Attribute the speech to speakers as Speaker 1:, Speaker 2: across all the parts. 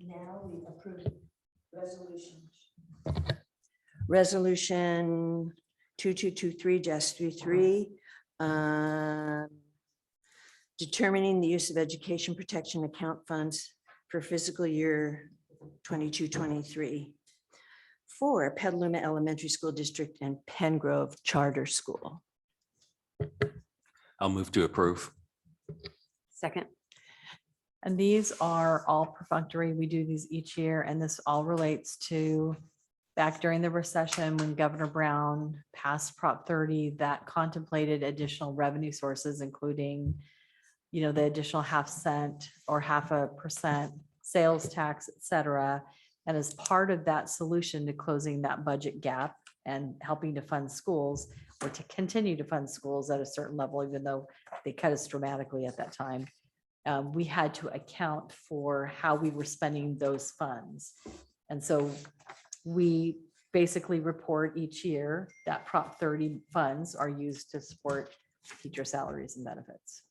Speaker 1: now we approve resolutions. Resolution two two two three dash three three. um, Determining the use of education protection account funds for fiscal year twenty-two, twenty-three. For Petaluma Elementary School District and Pen Grove Charter School.
Speaker 2: I'll move to approve.
Speaker 3: Second.
Speaker 4: And these are all perfunctory. We do these each year, and this all relates to back during the recession when Governor Brown passed Prop thirty that contemplated additional revenue sources, including, you know, the additional half cent or half a percent sales tax, et cetera. And as part of that solution to closing that budget gap and helping to fund schools or to continue to fund schools at a certain level, even though they cut us dramatically at that time uh, we had to account for how we were spending those funds. And so we basically report each year that Prop thirty funds are used to support teacher salaries and benefits.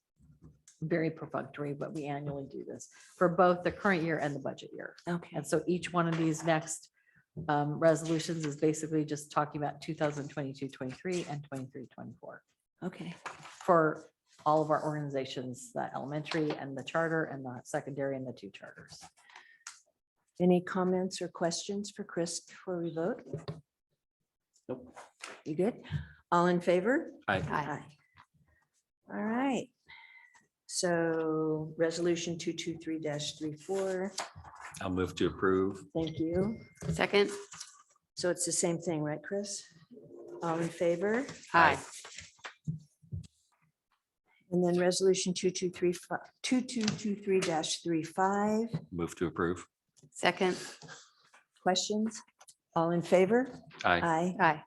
Speaker 4: Very perfunctory, but we annually do this for both the current year and the budget year.
Speaker 1: Okay.
Speaker 4: And so each one of these next um, resolutions is basically just talking about 2022-23 and 23-24
Speaker 1: Okay.
Speaker 4: for all of our organizations, the elementary and the charter and the secondary and the two charters.
Speaker 1: Any comments or questions for Chris before we vote?
Speaker 2: Nope.
Speaker 1: You good? All in favor?
Speaker 2: Aye.
Speaker 1: Aye. All right. So resolution two, two, three dash three, four.
Speaker 2: I'll move to approve.
Speaker 1: Thank you.
Speaker 3: Second.
Speaker 1: So it's the same thing, right, Chris? All in favor?
Speaker 3: Aye.
Speaker 1: And then resolution two, two, three, fi- two, two, two, three dash three, five.
Speaker 2: Move to approve.
Speaker 3: Second.
Speaker 1: Questions? All in favor?
Speaker 2: Aye.
Speaker 1: Aye.
Speaker 3: Aye.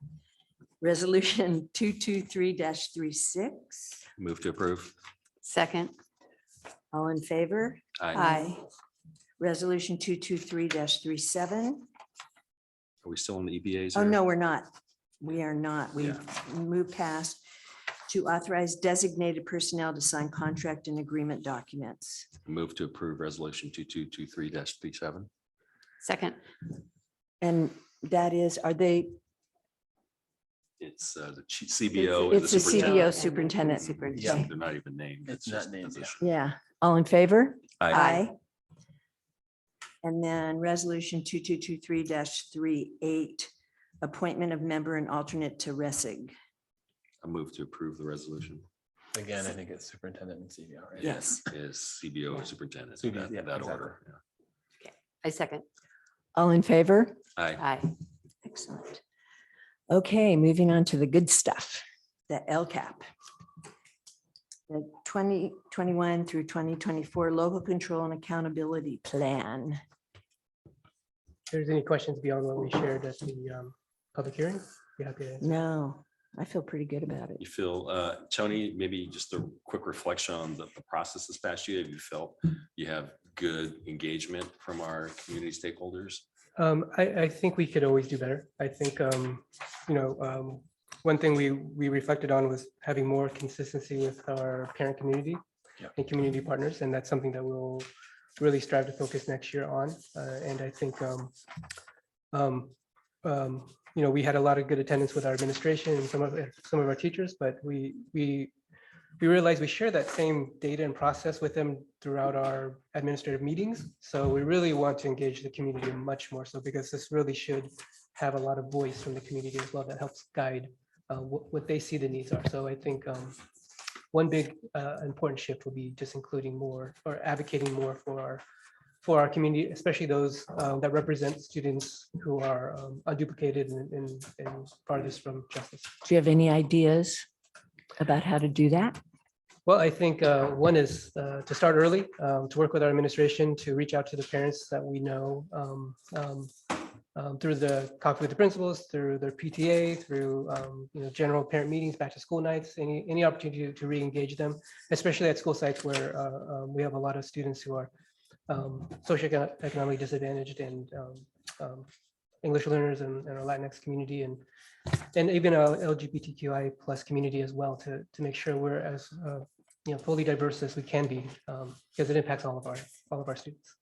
Speaker 1: Resolution two, two, three dash three, six.
Speaker 2: Move to approve.
Speaker 3: Second.
Speaker 1: All in favor?
Speaker 2: Aye.
Speaker 3: Aye.
Speaker 1: Resolution two two three 37
Speaker 2: Are we still in the EBAs?
Speaker 1: Oh,
Speaker 2: or-
Speaker 1: no, we're not. We are not. We
Speaker 2: Yeah.
Speaker 1: moved past to authorize designated personnel to sign contract and agreement documents.
Speaker 2: Move to approve resolution two, two, two, three dash three, seven.
Speaker 3: Second.
Speaker 1: And that is, are they,
Speaker 2: It's uh, the ch- CBO. and
Speaker 1: it's the CBO
Speaker 2: superintendent.
Speaker 1: superintendent.
Speaker 2: Yeah,
Speaker 1: Superintendent.
Speaker 2: they're not even named.
Speaker 5: It's
Speaker 2: just
Speaker 5: not named, yeah.
Speaker 2: position.
Speaker 1: Yeah, all in favor?
Speaker 2: Aye.
Speaker 1: And then resolution two two two three 38 appointment of member and alternate to RESIG.
Speaker 2: I move to approve the resolution.
Speaker 5: Again, I think it's superintendent and CBO, right?
Speaker 2: Yes. Is CBO or superintendent,
Speaker 5: CBO,
Speaker 2: that
Speaker 5: yeah,
Speaker 2: that
Speaker 5: exactly.
Speaker 2: order.
Speaker 3: I second.
Speaker 1: All in favor?
Speaker 2: yeah. Aye.
Speaker 3: Aye.
Speaker 1: Excellent. Okay, moving on to the good stuff, the LCAP. The 2021 through 2024 Local Control and Accountability Plan.
Speaker 6: If there's any questions beyond what we shared at the um, public hearing, be happy to answer.
Speaker 1: No, I feel pretty good about it.
Speaker 2: You feel, uh, Tony, maybe just a quick reflection on the the process this past year. Have you felt you have good engagement from our community stakeholders?
Speaker 6: Um, I, I think we could always do better. I think, um, you know, um, one thing we, we reflected on was having more consistency with our parent community
Speaker 5: Yeah.
Speaker 6: and community partners, and that's something that we'll really strive to focus next year on. Uh, and I think, um, um, um, you know, we had a lot of good attendance with our administration and some of, some of our teachers, but we, we, we realized we share that same data and process with them throughout our administrative meetings. So we really want to engage the community much more so because this really should have a lot of voice from the community as well that helps guide uh, what, what they see the needs are. So I think um, one big uh, important shift will be just including more or advocating more for our, for our community, especially those uh, that represent students who are um, unduplicated and, and and farthest from justice.
Speaker 1: Do you have any ideas about how to do that?
Speaker 6: Well, I think uh, one is uh, to start early, um, to work with our administration, to reach out to the parents that we know um, um, um, through the coffee with the principals, through their PTA, through, um, you know, general parent meetings, back to school nights, any, any opportunity to re-engage them, especially at school sites where uh, um, we have a lot of students who are um, socioeconomically disadvantaged and um, um, English learners and and our Latinx community and and even our LGBTQI plus community as well to, to make sure we're as, uh, you know, fully diverse as we can be, um, because it impacts all of our, all of our students.